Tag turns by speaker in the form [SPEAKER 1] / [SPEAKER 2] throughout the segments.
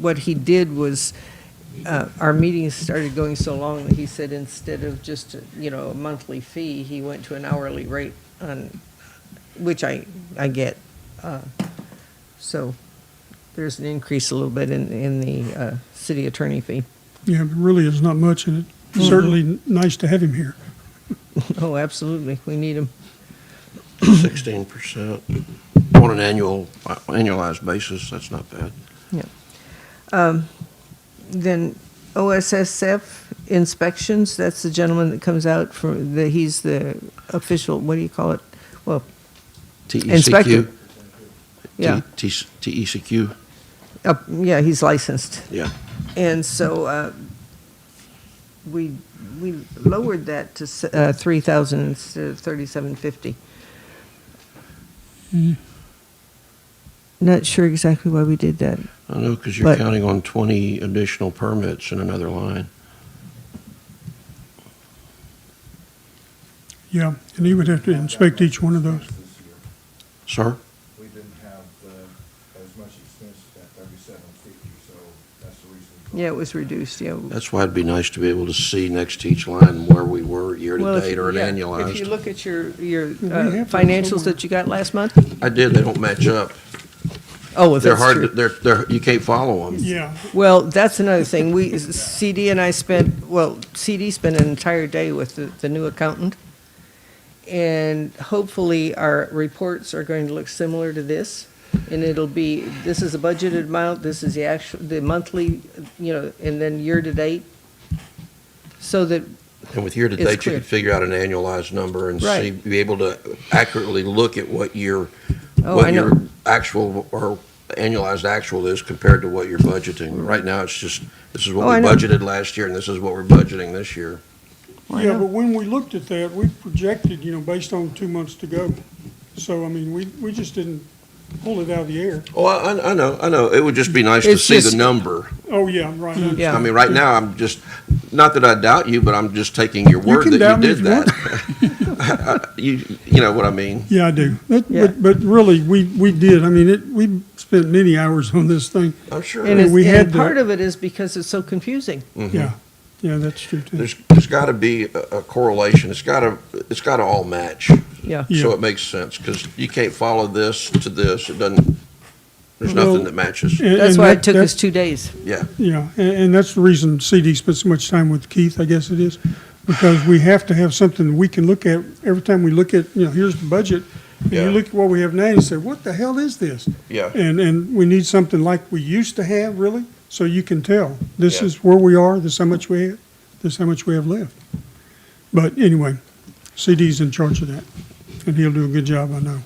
[SPEAKER 1] what he did was, uh, our meetings started going so long that he said instead of just, you know, a monthly fee, he went to an hourly rate on, which I, I get. Uh, So there's an increase a little bit in, in the uh, city attorney fee.
[SPEAKER 2] Yeah, but really, there's not much, and it's certainly n- nice to have him here.
[SPEAKER 1] Oh, absolutely, we need him.
[SPEAKER 3] Sixteen percent on an annual, annualized basis, that's not bad.
[SPEAKER 1] Yeah. Um, Then OSSF inspections, that's the gentleman that comes out for, the, he's the official, what do you call it? Well, Inspector.
[SPEAKER 3] TECQ?
[SPEAKER 1] yeah,
[SPEAKER 3] E T- E T- TECQ,
[SPEAKER 1] uh, yeah, he's licensed.
[SPEAKER 3] yeah.
[SPEAKER 1] And so uh, we, we lowered that to s- uh, 3,000 instead of 3,750. Hmm. Not sure exactly why we did that.
[SPEAKER 3] I know, because you're
[SPEAKER 1] But-
[SPEAKER 3] counting on twenty additional permits in another line.
[SPEAKER 2] Yeah, and he would have to inspect each one of those.
[SPEAKER 4] This year,
[SPEAKER 3] Sir,
[SPEAKER 4] We didn't have uh, as much expense at thirty-seven fifty, so that's the reason.
[SPEAKER 1] Yeah, it was reduced, yeah.
[SPEAKER 3] that's why it'd be nice to be able to see next to each line where we were
[SPEAKER 1] Well, if-
[SPEAKER 3] year-to-date or an
[SPEAKER 1] yeah, If you
[SPEAKER 3] annualized.
[SPEAKER 1] look at your, your uh,
[SPEAKER 2] Well, we have them
[SPEAKER 1] financials
[SPEAKER 2] somewhere.
[SPEAKER 1] that you got last month,
[SPEAKER 3] I did, they don't match up.
[SPEAKER 1] oh, well,
[SPEAKER 3] They're
[SPEAKER 1] that's
[SPEAKER 3] hard, to-
[SPEAKER 1] true.
[SPEAKER 3] they're, they're, you can't follow them.
[SPEAKER 2] Yeah,
[SPEAKER 1] Well, that's another thing. We, CD and I spent, well, CD spent an entire day with the, the new accountant. And hopefully our reports are going to look similar to this. And it'll be, this is a budgeted amount, this is the actual, the monthly, you know, and then year-to-date. So that,
[SPEAKER 3] And with year-to-date, you
[SPEAKER 1] clear.
[SPEAKER 3] could figure out an annualized number and see,
[SPEAKER 1] Right.
[SPEAKER 3] be able to accurately look at what your
[SPEAKER 1] oh, I
[SPEAKER 3] what
[SPEAKER 1] know.
[SPEAKER 3] your actual or annualized actual is compared to what you're budgeting. Right now, it's just, this is what
[SPEAKER 1] Oh, I
[SPEAKER 3] we
[SPEAKER 1] know.
[SPEAKER 3] budgeted last year, and this is what we're budgeting this year.
[SPEAKER 1] Why
[SPEAKER 2] yeah,
[SPEAKER 1] not?
[SPEAKER 2] but when we looked at that, we projected, you know, based on two months to go. So, I mean, we, we just didn't pull it out of the air.
[SPEAKER 3] Oh, I, I- I know, I know. It would just be nice to
[SPEAKER 1] It's
[SPEAKER 3] see
[SPEAKER 1] just-
[SPEAKER 3] the number.
[SPEAKER 2] Oh, yeah, right. I
[SPEAKER 1] Mm-hmm. Yeah.
[SPEAKER 3] I
[SPEAKER 2] understand.
[SPEAKER 3] mean, right now, I'm just, not that I doubt you, but I'm just taking your word
[SPEAKER 2] can doubt
[SPEAKER 3] that
[SPEAKER 2] me
[SPEAKER 3] you
[SPEAKER 2] if
[SPEAKER 3] did
[SPEAKER 2] you want.
[SPEAKER 3] that. You, you know what I mean?
[SPEAKER 2] Yeah, I do. That-
[SPEAKER 1] Yeah.
[SPEAKER 2] But, but really, we, we did. I mean, it, we spent many hours on this thing.
[SPEAKER 1] Uh,
[SPEAKER 3] I'm sure.
[SPEAKER 1] And it's,
[SPEAKER 2] we had
[SPEAKER 1] and
[SPEAKER 2] the-
[SPEAKER 1] part of it is because it's so confusing.
[SPEAKER 2] Yeah, yeah, that's true too.
[SPEAKER 3] There's, there's got to be a a correlation. It's got to, it's got to all match.
[SPEAKER 1] Yeah.
[SPEAKER 2] Yeah.
[SPEAKER 3] So it makes sense, because you can't follow this to this. It doesn't, there's nothing
[SPEAKER 2] Well,
[SPEAKER 3] that matches.
[SPEAKER 2] And-
[SPEAKER 1] That's
[SPEAKER 2] and
[SPEAKER 1] why
[SPEAKER 2] that-
[SPEAKER 1] it took
[SPEAKER 2] that-
[SPEAKER 1] us two days.
[SPEAKER 3] Yeah.
[SPEAKER 2] Yeah, and, and that's the reason CD spent so much time with Keith, I guess it is, because we have to have something that we can look at every time we look at, you know, here's the budget. And
[SPEAKER 3] Yeah.
[SPEAKER 2] you look at what we have now, and you say, what the hell is this?
[SPEAKER 3] Yeah.
[SPEAKER 2] And, and we need something like we used to have, really, so you can tell, this
[SPEAKER 3] Yeah.
[SPEAKER 2] is where we are, this is how much we have, this is how much we have left. But anyway, CD's in charge of that, and he'll do a good job, I know.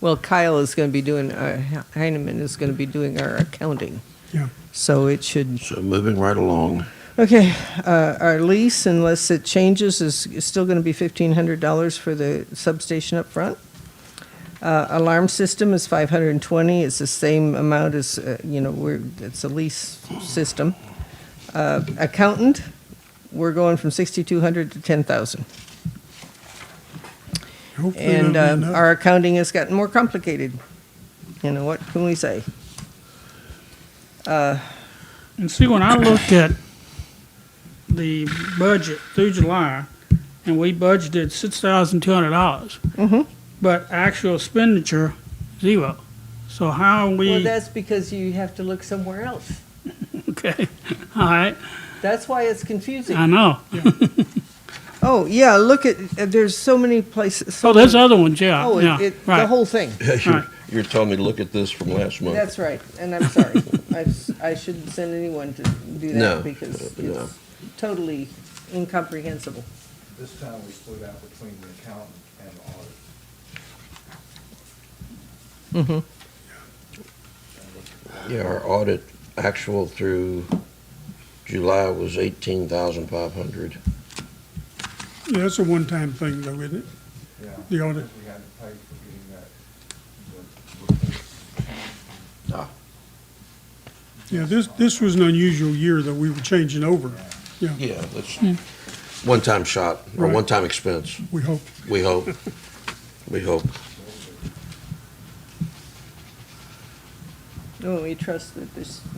[SPEAKER 1] Well, Kyle is going to be doing, uh, Heineman is going to be doing our accounting,
[SPEAKER 2] Yeah,
[SPEAKER 1] so it should.
[SPEAKER 3] So moving right along,
[SPEAKER 1] Okay, uh, our lease, unless it changes, is is still going to be fifteen hundred dollars for the substation up front. Uh, alarm system is five hundred and twenty, it's the same amount as, uh, you know, we're, it's a lease system. Uh, accountant, we're going from sixty-two hundred to ten thousand.
[SPEAKER 2] hopefully that'll
[SPEAKER 1] And
[SPEAKER 2] be
[SPEAKER 1] um,
[SPEAKER 2] enough.
[SPEAKER 1] our accounting has gotten more complicated. You know, what can we say?
[SPEAKER 5] And see, when I looked at the budget through July, and we budgeted six thousand two hundred dollars.
[SPEAKER 1] Mm-hmm.
[SPEAKER 5] But actual expenditure, zero. So how are
[SPEAKER 1] Well,
[SPEAKER 5] we,
[SPEAKER 1] that's because you have to look somewhere else.
[SPEAKER 5] okay, all right,
[SPEAKER 1] That's why it's confusing.
[SPEAKER 5] I know.
[SPEAKER 1] Oh, yeah, look at, uh, there's so many places. so
[SPEAKER 5] Oh, there's
[SPEAKER 1] many-
[SPEAKER 5] other ones, yeah,
[SPEAKER 1] Oh,
[SPEAKER 5] yeah,
[SPEAKER 1] it- it, the
[SPEAKER 5] right.
[SPEAKER 1] whole thing.
[SPEAKER 3] you're, you're telling me to look at this from last month.
[SPEAKER 1] That's right, and I'm sorry. I've s- I shouldn't send anyone to do
[SPEAKER 3] No,
[SPEAKER 1] that because
[SPEAKER 3] no.
[SPEAKER 1] it's totally incomprehensible.
[SPEAKER 4] This time we split out between the accountant and the audit.
[SPEAKER 3] Yeah, our audit actual through July was eighteen thousand five hundred.
[SPEAKER 2] Yeah, that's a one-time thing though, isn't it?
[SPEAKER 4] Yeah.
[SPEAKER 2] The audit.
[SPEAKER 4] We had to pay for getting that, the reports.
[SPEAKER 2] Yeah, this, this was an unusual year that we were changing over,
[SPEAKER 3] Yeah, that's one-time shot, or
[SPEAKER 2] Hmm. Right.
[SPEAKER 3] one-time expense,
[SPEAKER 2] we hope.
[SPEAKER 3] we hope, we hope.
[SPEAKER 1] Oh, we trust that this